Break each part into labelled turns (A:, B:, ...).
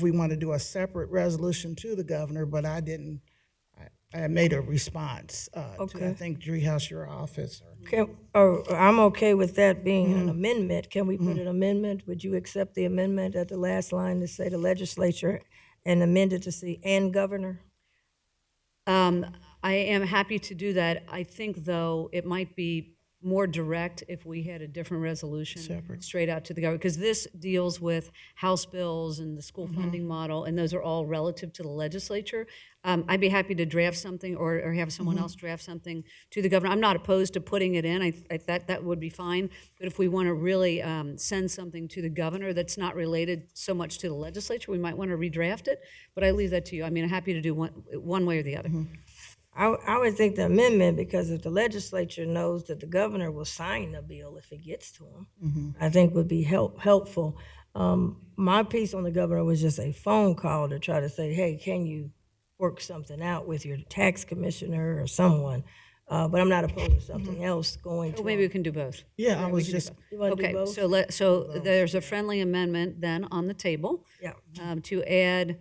A: if we want to do a separate resolution to the governor, but I didn't, I, I made a response, uh, to, I
B: Okay.
A: think, Dreehouse, your office. or-
B: Can, or, or I'm okay with that being an amendment. Can we put an amendment? Would you accept the amendment at the last line to say the legislature and amend it to see and governor?
C: Um, I am happy to do that. I think, though, it might be more direct if we had a different resolution straight out to the government, because this deals with House bills and the school funding model, and those are all relative to the legislature. Um, I'd be happy to draft something or, or have someone else draft something to the governor. I'm not opposed to putting it in. I, I that that would be fine. But if we want to really um, send something to the governor that's not related so much to the legislature, we might want to redraft it. But I leave that to you. I mean, I'm happy to do one one way or the other.
B: I, w- I would think the amendment, because if the legislature knows that the governor will sign the bill if it gets to him, I think would be help, helpful. Um, my piece on the governor was just a phone call to try to say, hey, can you work something out with your tax commissioner or someone? Uh, but I'm not opposed to something else going to.
C: Well, maybe we can do both.
A: Yeah, I was just,
B: You wanna do
C: Okay,
B: both?
C: so let, so there's a friendly amendment then on the table.
B: Yeah.
C: um, To add,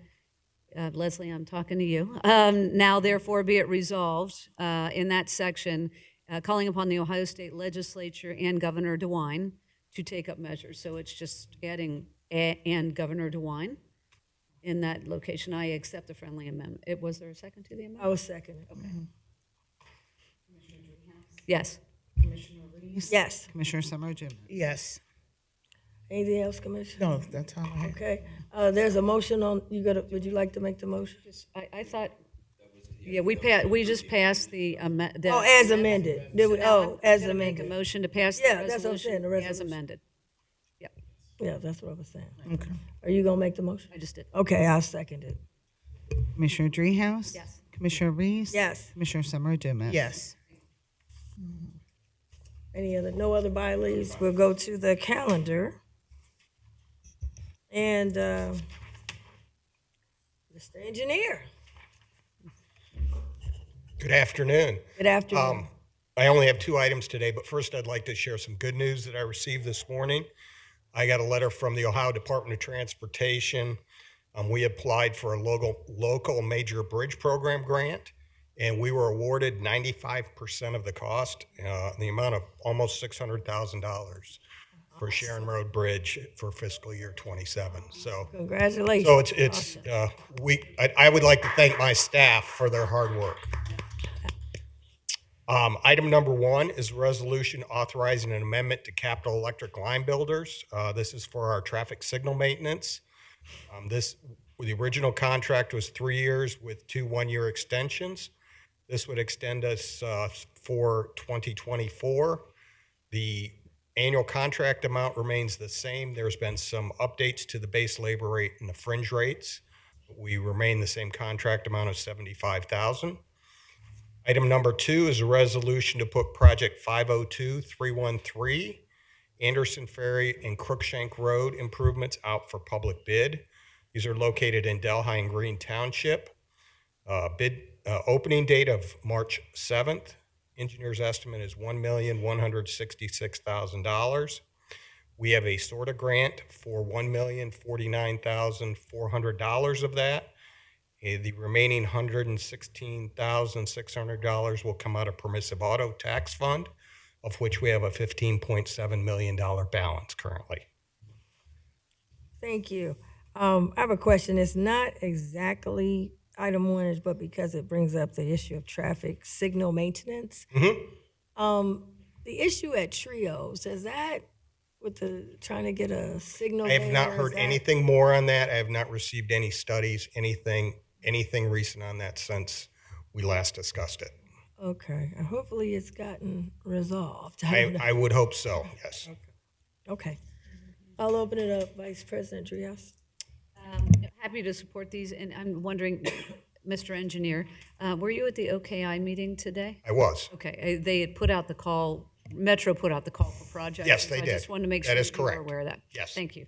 C: uh, Leslie, I'm talking to you. Um, Now therefore be it resolved uh, in that section, uh, calling upon the Ohio State Legislature and Governor DeWine to take up measures. So it's just adding a- and Governor DeWine in that location. I accept the friendly amendment. It- Was there a second to the amendment?
B: I was second. Okay. Yes.
C: Yes.
D: Commissioner Summer Dumas.
A: yes,
B: Anything else, Commissioner?
A: no, that's all I had.
B: Okay, uh, there's a motion on, you gotta, would you like to make the motion?
C: I, I thought, yeah, we passed, we just passed the amendment.
B: Oh, as amended, Did we- oh, as
C: gonna make a
B: amended,
C: motion to pass the
B: Yeah, that's what I'm saying,
C: resolution
B: the
C: as
B: resolution.
C: amended.
B: yeah, that's what I was saying. Okay. Are you gonna make the motion?
C: I just did.
B: Okay, I'll second it.
D: Commissioner Dreehouse?
C: Yes.
D: Commissioner Reese?
B: Yes,
D: Commissioner Summer Dumas.
A: Yes,
B: any other, no other by leaves, we'll go to the calendar. And, uh, Mr. Engineer,
E: Good afternoon.
B: good afternoon.
E: I only have two items today, but first I'd like to share some good news that I received this morning. I got a letter from the Ohio Department of Transportation. Um, we applied for a local, local major bridge program grant, and we were awarded 95% of the cost, uh, the amount of almost $600,000 for Sharon Road Bridge for fiscal year 27. So,
B: Congratulations.
E: so it's, it's uh, we, I, I would like to thank my staff for their hard work. Um, Item number one is a resolution authorizing an amendment to capital electric line builders. Uh, This is for our traffic signal maintenance. Um, This, the original contract was three years with two one-year extensions. This would extend us uh, for 2024. The annual contract amount remains the same. There's been some updates to the base labor rate and the fringe rates. We remain the same contract amount of 75,000. Item number two is a resolution to put project 502-313 Anderson Ferry and Crookshank Road improvements out for public bid. These are located in Delhi and Green Township. Uh, Bid, uh, opening date of March 7th. Engineer's estimate is $1,166,000. We have a SORTA grant for $1,049,400 of that. Eh, The remaining $116,600 will come out of permissive auto tax fund, of which we have a $15.7 million balance currently.
B: Thank you. Um, I have a question. It's not exactly item one, is but because it brings up the issue of traffic signal maintenance.
E: Mm-hmm.
B: Um, the issue at trios, is that with the, trying to get a signal?
E: I have not
B: there, Oh, is
E: heard
B: that-
E: anything more on that. I have not received any studies, anything, anything recent on that since we last discussed it.
B: Okay, and hopefully it's gotten resolved. I don't
E: I,
B: know.
E: I would hope so, yes.
B: Okay. I'll open it up, Vice President Trios.
C: Um, Happy to support these, and I'm wondering, Mr. Engineer, uh, were you at the OKI meeting today?
E: I was.
C: Okay, uh, they had put out the call, Metro put out the call for projects.
E: Yes, they
C: so I just
E: did.
C: wanted to make
E: That
C: sure
E: is
C: that you were
E: correct.
C: aware of that.
E: Yes.
C: Thank you.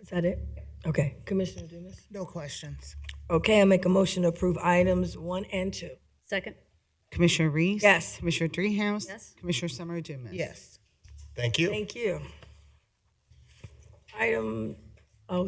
B: Is that it? Okay, Commissioner Dumas.
A: no questions.
B: Okay, I make a motion to approve items one and two.
C: Second?
D: Commissioner Reese?
B: Yes.
D: Commissioner Dreehouse?
C: Yes.
D: Commissioner Summer Dumas.
A: Yes,
E: Thank you.
B: Thank you. Item
E: oh,